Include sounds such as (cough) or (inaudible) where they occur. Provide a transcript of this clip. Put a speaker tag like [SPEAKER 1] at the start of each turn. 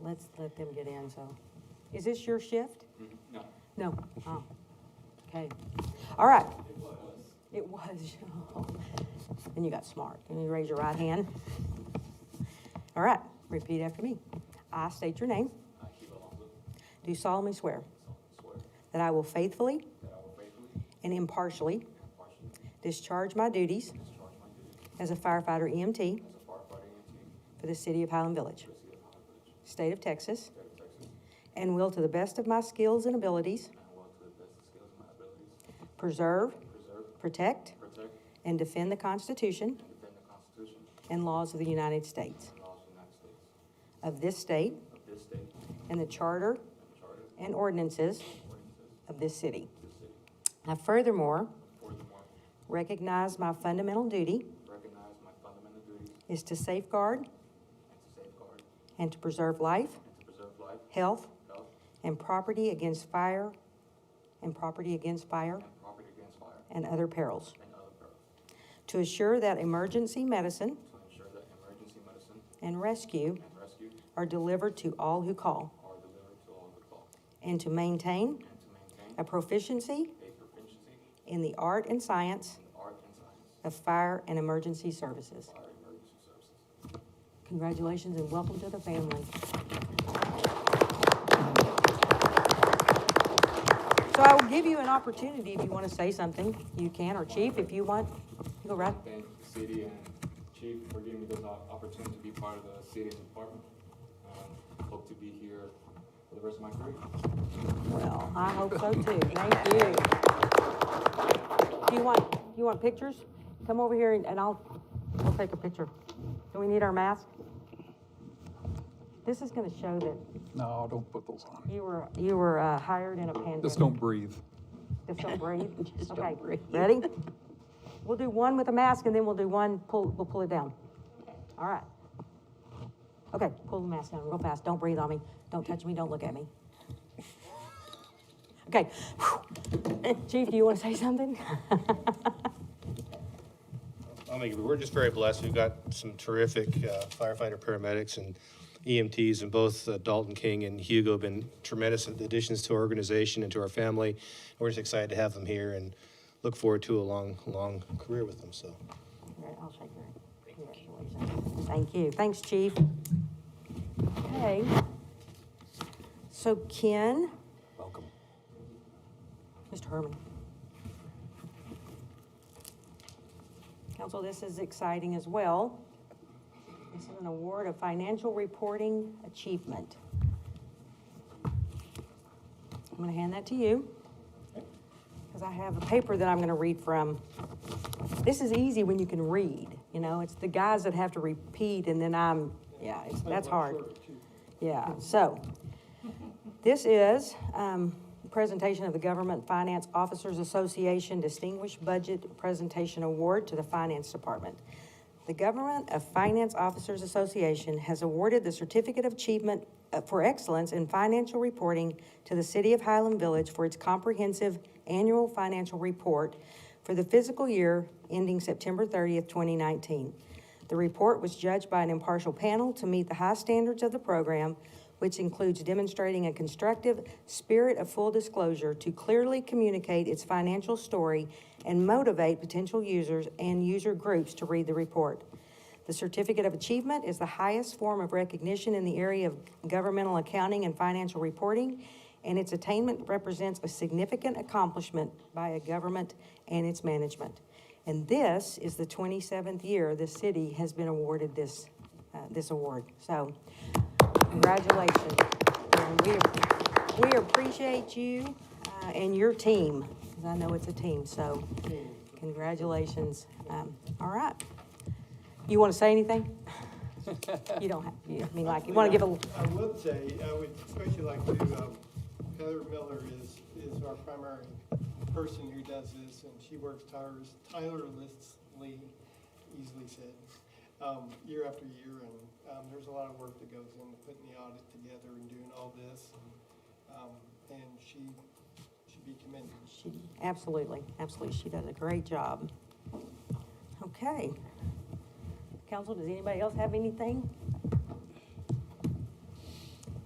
[SPEAKER 1] let's let them get in, so. Is this your shift? Mm-hmm. No. No, oh, okay. All right. It was. It was. (laughs) Then you got smart. Then you raise your right hand. All right, repeat after me. I state your name. Do solemnly swear. That I will faithfully. And impartially. Discharge my duties. As E a firefighter EMT. For the city of Highland Village. State of Texas. And will to the best of my skills and abilities. Preserve. Protect. And defend the Constitution. And laws of the United States. Of this state. And the charter. And ordinances. Of this city. I furthermore. Recognize my fundamental duty.
[SPEAKER 2] Recognize my fundamental duties
[SPEAKER 1] Is to safeguard.
[SPEAKER 2] and to safeguard and
[SPEAKER 1] And to preserve life,
[SPEAKER 2] to preserve life,
[SPEAKER 1] health,
[SPEAKER 2] health,
[SPEAKER 1] and property against fire, and property against fire
[SPEAKER 2] and property against fire
[SPEAKER 1] and other perils.
[SPEAKER 2] and other perils.
[SPEAKER 1] To assure that emergency medicine
[SPEAKER 2] To ensure that emergency medicine
[SPEAKER 1] and rescue
[SPEAKER 2] and rescue
[SPEAKER 1] are delivered to all who call.
[SPEAKER 2] are delivered to all who call.
[SPEAKER 1] And to maintain
[SPEAKER 2] And to maintain
[SPEAKER 1] a proficiency
[SPEAKER 2] a proficiency in
[SPEAKER 1] in the art and science
[SPEAKER 2] the art and science
[SPEAKER 1] of fire and emergency services.
[SPEAKER 2] of fire emergency services.
[SPEAKER 1] Congratulations and welcome to the family. So I will give you an opportunity if you want to say something. You can, or Chief, if you want. You Go right.
[SPEAKER 2] Thank the city and chief for giving me this op- opportunity to be part of the city and department. Um, Hope to be here for the rest of my career.
[SPEAKER 1] Well, I hope so too. Thank you. Do you want, you want pictures? Come over here and and I'll, I'll take a picture. Do we need our mask? This is gonna show that
[SPEAKER 3] No, don't put those on.
[SPEAKER 1] you were, you were uh, hired in a pandemic.
[SPEAKER 3] Just don't breathe.
[SPEAKER 1] Just (laughs) don't breathe? Okay, ready? We'll do one with a mask and then we'll do one, pull, we'll pull it down. All right. Okay, pull the mask down real fast. Don't breathe on me. Don't touch me. Don't look at me. Okay. Chief, do you want to say something? (laughs)
[SPEAKER 4] I'll make it. We're just very blessed. We've got some terrific uh, firefighter paramedics and EMTs, and both uh, Dalton King and Hugo have been tremendous additions to our organization and to our family. We're just excited to have them here and look forward to a long, long career with them, so.
[SPEAKER 1] All right, I'll shake your hand. Congratulations. Thank you. Thanks, Chief. Okay. So Ken?
[SPEAKER 3] Welcome.
[SPEAKER 1] Mr. Herman. Council, this is exciting as well. This is an award of financial reporting achievement. I'm gonna hand that to you, because I have a paper that I'm gonna read from. This is easy when you can read, you know, it's the guys that have to repeat, and then I'm, yeah, it's- that's hard. Yeah, so, this is um, a presentation of the Government Finance Officers Association Distinguished Budget Presentation Award to the Finance Department. The Government of Finance Officers Association has awarded the Certificate of Achievement uh, for Excellence in Financial Reporting to the City of Highland Village for its comprehensive annual financial report for the fiscal year ending September 30th, 2019. The report was judged by an impartial panel to meet the high standards of the program, which includes demonstrating a constructive spirit of full disclosure to clearly communicate its financial story and motivate potential users and user groups to read the report. The Certificate of Achievement is the highest form of recognition in the area of governmental accounting and financial reporting, and its attainment represents a significant accomplishment by a government and its management. And this is the 27th year the city has been awarded this, uh, this award. So congratulations. And we, we appreciate you uh, and your team, because I know it's a team, so congratulations. Um, All right. You want to say anything? You don't have, you, I mean, like, you want to give a,
[SPEAKER 5] I would say, I would especially like to, um, Heather Miller is, is our primary person who does this, and she works tires- tirelessly, easily said, um, year after year, and, um, there's a lot of work that goes into putting the audit together and doing all this. and, Um, and she should be commended.
[SPEAKER 1] she, absolutely, absolutely, she does a great job. Okay. Council, does anybody else have anything?